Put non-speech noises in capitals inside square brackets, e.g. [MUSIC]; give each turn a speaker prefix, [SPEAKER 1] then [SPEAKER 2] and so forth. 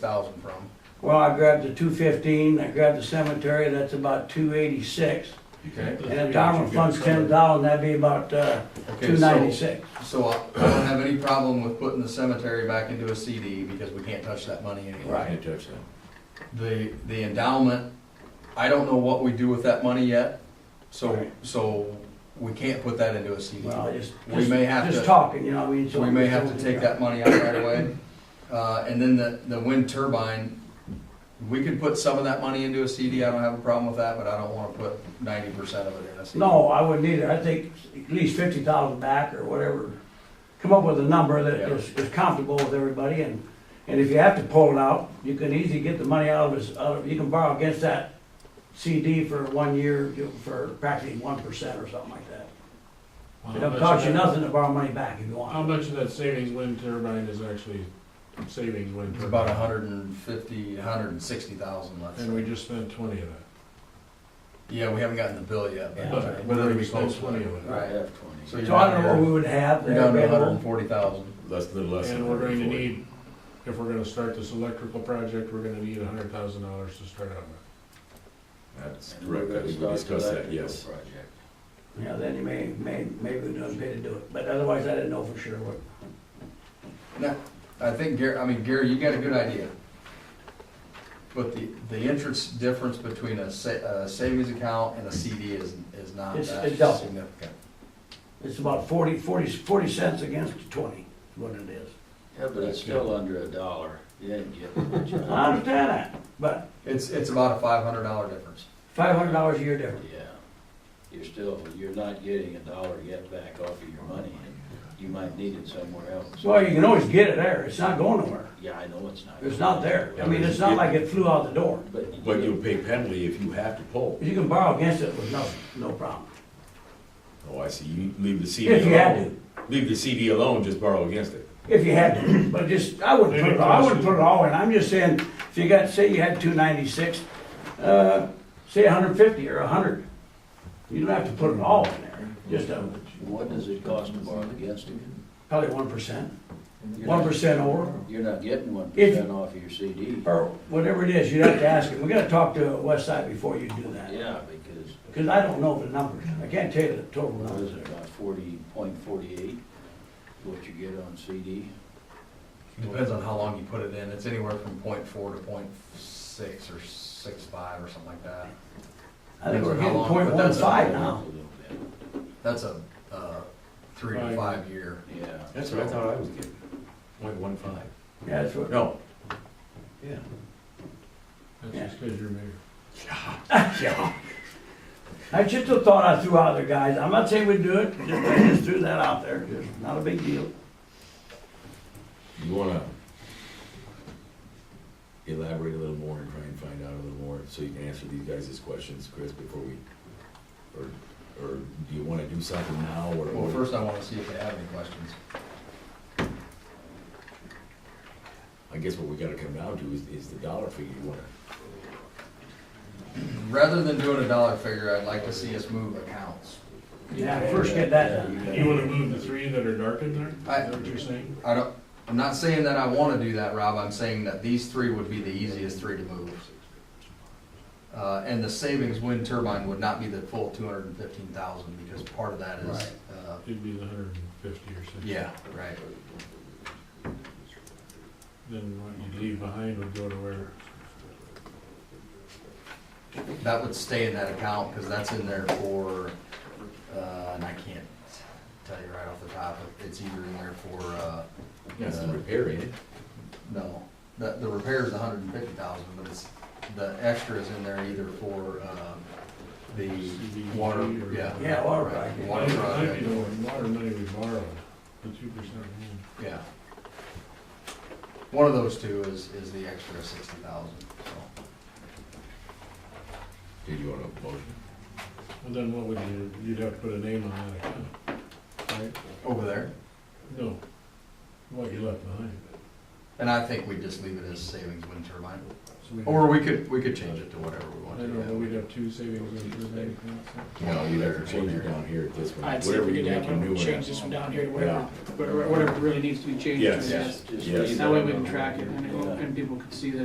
[SPEAKER 1] thousand from.
[SPEAKER 2] Well, I grabbed the two fifteen, I grabbed the cemetery, that's about two eighty-six.
[SPEAKER 1] Okay.
[SPEAKER 2] And the dollar fund's ten dollars, that'd be about, uh,
[SPEAKER 1] Okay,
[SPEAKER 2] two
[SPEAKER 1] so,
[SPEAKER 2] ninety-six.
[SPEAKER 1] so I I don't have any problem with putting the cemetery back into a CD because we can't touch that money anymore.
[SPEAKER 2] Right.
[SPEAKER 3] Can't touch that.
[SPEAKER 1] The, the endowment, I don't know what we do with that money yet, so,
[SPEAKER 2] Right.
[SPEAKER 1] so we can't put that into a CD.
[SPEAKER 2] Well, just,
[SPEAKER 1] We
[SPEAKER 2] just,
[SPEAKER 1] may have
[SPEAKER 2] just
[SPEAKER 1] to,
[SPEAKER 2] talking, you know, I mean. so-
[SPEAKER 1] we may have to take that money out right away. Uh, and then the, the wind turbine, we could put some of that money into a CD, I don't have a problem with that, but I don't wanna put ninety percent of it in a CD.
[SPEAKER 2] No, I wouldn't either, I think at least fifty thousand back or whatever. Come up with a number that
[SPEAKER 1] Yeah.
[SPEAKER 2] is, is comfortable with everybody and, and if you have to pull it out, you can easily get the money out of this, out of, you can borrow against that CD for one year, you- for practically one percent or something like that. It
[SPEAKER 4] How
[SPEAKER 2] doesn't
[SPEAKER 4] much
[SPEAKER 2] cost you
[SPEAKER 4] of that-
[SPEAKER 2] nothing to borrow money back if you
[SPEAKER 4] How
[SPEAKER 2] want.
[SPEAKER 4] much of that savings wind turbine is actually savings wind
[SPEAKER 1] It's
[SPEAKER 4] turbine?
[SPEAKER 1] about a hundred and fifty, a hundred and sixty thousand left.
[SPEAKER 4] And we just spent twenty of that.
[SPEAKER 1] Yeah, we haven't gotten the bill yet,
[SPEAKER 2] Yeah.
[SPEAKER 1] but
[SPEAKER 4] But-
[SPEAKER 1] we're
[SPEAKER 4] but
[SPEAKER 1] gonna
[SPEAKER 4] we
[SPEAKER 1] be
[SPEAKER 4] spent
[SPEAKER 1] close.
[SPEAKER 4] 20 of it.
[SPEAKER 1] Right.
[SPEAKER 3] have twenty.
[SPEAKER 1] So you're
[SPEAKER 2] So I don't know what
[SPEAKER 1] down
[SPEAKER 2] we would have.
[SPEAKER 1] to, you're down to hundred
[SPEAKER 2] available.
[SPEAKER 1] and forty thousand.
[SPEAKER 3] Less, than less. than
[SPEAKER 4] And we're going to
[SPEAKER 3] 140.
[SPEAKER 4] need, if we're gonna start this electrical project, we're gonna need a hundred thousand dollars to start out with.
[SPEAKER 3] That's
[SPEAKER 5] And we're
[SPEAKER 3] correct, I
[SPEAKER 5] gonna
[SPEAKER 3] think we
[SPEAKER 5] start
[SPEAKER 3] discussed
[SPEAKER 5] the
[SPEAKER 3] that,
[SPEAKER 5] electrical
[SPEAKER 3] yes.
[SPEAKER 5] project.
[SPEAKER 2] Yeah, then you may, may, maybe we don't pay to do it, but otherwise I didn't know for sure what.
[SPEAKER 1] I think Gary, I mean, Gary, you got a good idea. But the, the interest difference between a sa- a savings account and a CD is, is not that
[SPEAKER 2] It's- it's double.
[SPEAKER 1] significant.
[SPEAKER 2] It's about forty, forty, forty cents against twenty, is what it is.
[SPEAKER 5] Yeah, but it's still under a dollar. You ain't
[SPEAKER 2] [LAUGHS]
[SPEAKER 5] getting much.
[SPEAKER 2] I
[SPEAKER 5] out of it.
[SPEAKER 2] understand that, but
[SPEAKER 1] It's, it's about a five hundred dollar difference.
[SPEAKER 2] five hundred dollars a year difference.
[SPEAKER 5] Yeah. You're still, you're not getting a dollar yet back off of your money. and You might need it somewhere else.
[SPEAKER 2] Well, you can always get it there, it's not going nowhere,
[SPEAKER 5] Yeah, I know it's not.
[SPEAKER 2] it's not there, I mean, it's not like it flew out the door.
[SPEAKER 5] But.
[SPEAKER 3] But you'll pay penalty if you have to pull.
[SPEAKER 2] You can borrow against it with no, no problem.
[SPEAKER 3] Oh, I see, you leave the CD
[SPEAKER 2] If you had
[SPEAKER 3] alone. Leave the CD alone, just borrow against it.
[SPEAKER 2] If you had to, but just, I wouldn't put it, I wouldn't put it all in, I'm just saying, if you got, say you had two ninety-six, uh, say hundred fifty or hundred. You don't have to put it all in there, just a,
[SPEAKER 5] What does it cost to borrow against it?
[SPEAKER 2] probably one percent,
[SPEAKER 5] You're
[SPEAKER 2] one
[SPEAKER 5] not-
[SPEAKER 2] percent over,
[SPEAKER 5] You're not getting one
[SPEAKER 2] If-
[SPEAKER 5] percent off of your CD.
[SPEAKER 2] or whatever it is, you'd have to ask him, we gotta talk to West Side before you do that.
[SPEAKER 5] Yeah, because
[SPEAKER 2] Cause I don't know the numbers, I can't tell you the total
[SPEAKER 5] what is
[SPEAKER 2] numbers.
[SPEAKER 5] it, about forty point forty-eight, what you get on CD?
[SPEAKER 1] Depends on how long you put it in. It's anywhere from point four to point six or six five or something like that.
[SPEAKER 2] I think we're
[SPEAKER 1] How
[SPEAKER 2] getting
[SPEAKER 1] long?
[SPEAKER 2] point
[SPEAKER 1] But
[SPEAKER 2] one
[SPEAKER 1] that's a-
[SPEAKER 2] five now.
[SPEAKER 1] That's a, uh, three to
[SPEAKER 4] Five.
[SPEAKER 1] five year.
[SPEAKER 5] Yeah.
[SPEAKER 3] That's what I thought I was getting, point one five.
[SPEAKER 2] Yeah, that's what,
[SPEAKER 3] No. Yeah.
[SPEAKER 2] Yeah.
[SPEAKER 4] That's just cause you're mayor.
[SPEAKER 3] Yeah.
[SPEAKER 2] I just a thought I threw out there, guys, I'm not saying we do it, just, I just threw that out there, It's not a big deal.
[SPEAKER 3] You wanna elaborate a little more and try and find out a little more, so you can answer these guys' questions, Chris, before we, or, or do you wanna do something now, or?
[SPEAKER 1] Well, first I wanna see if they have any questions.
[SPEAKER 3] I guess what we gotta come down to is, is the dollar figure you wanna,
[SPEAKER 1] Rather than doing a dollar figure, I'd like to see us move accounts.
[SPEAKER 2] Yeah, first get that done.
[SPEAKER 4] You wanna move the three that are dark in there? Is
[SPEAKER 1] I-
[SPEAKER 4] that what you're saying?
[SPEAKER 1] I don't, I'm not saying that I wanna do that, Rob, I'm saying that these three would be the easiest three to move. Uh, and the savings wind turbine would not be the full two hundred and fifteen thousand, because part of that is,
[SPEAKER 5] Right.
[SPEAKER 1] uh,
[SPEAKER 4] It'd be the hundred and fifty or something.
[SPEAKER 1] yeah, right.
[SPEAKER 4] Then what you leave behind would go to where?
[SPEAKER 1] That would stay in that account, cause that's in there for, uh, and I can't tell you right off the top, but it's either in there for, uh,
[SPEAKER 3] that's the repair, ain't it?
[SPEAKER 1] No, the, the repair's a hundred and fifty thousand, but it's, the extra is in there either for, um, the
[SPEAKER 4] CDBG
[SPEAKER 1] water,
[SPEAKER 4] or-
[SPEAKER 1] yeah.
[SPEAKER 2] Yeah, water project.
[SPEAKER 1] Water
[SPEAKER 4] Might- Might be
[SPEAKER 1] project,
[SPEAKER 4] the one- water money we borrowed, the two percent.
[SPEAKER 1] yeah. One of those two is, is the extra sixty thousand, so.
[SPEAKER 3] Did you want a motion?
[SPEAKER 4] Well, then what would you, you'd have to put a name on that account, right?
[SPEAKER 1] Over there,
[SPEAKER 4] No, what you left behind.
[SPEAKER 1] And I think we just leave it as savings wind turbine,
[SPEAKER 4] So we'd-
[SPEAKER 1] or we could, we could change it to whatever we
[SPEAKER 4] I
[SPEAKER 1] want to.
[SPEAKER 4] don't know, but
[SPEAKER 1] yeah.
[SPEAKER 4] we'd have two savings and three bank.
[SPEAKER 3] No, you'd have to change it down here at this one.
[SPEAKER 6] I'd say
[SPEAKER 3] Whatever
[SPEAKER 6] we
[SPEAKER 3] you
[SPEAKER 6] could
[SPEAKER 3] make
[SPEAKER 6] have
[SPEAKER 3] a new
[SPEAKER 6] one,
[SPEAKER 3] one
[SPEAKER 6] change
[SPEAKER 3] at.
[SPEAKER 6] this one down here to whatever, whatever whatever really needs to be changed.
[SPEAKER 3] Yes.
[SPEAKER 6] to this.
[SPEAKER 5] Just
[SPEAKER 3] Yes.
[SPEAKER 5] leave
[SPEAKER 6] That way we
[SPEAKER 5] it
[SPEAKER 6] can
[SPEAKER 5] alone.
[SPEAKER 6] track it and it-
[SPEAKER 5] Yeah.
[SPEAKER 6] and people can see that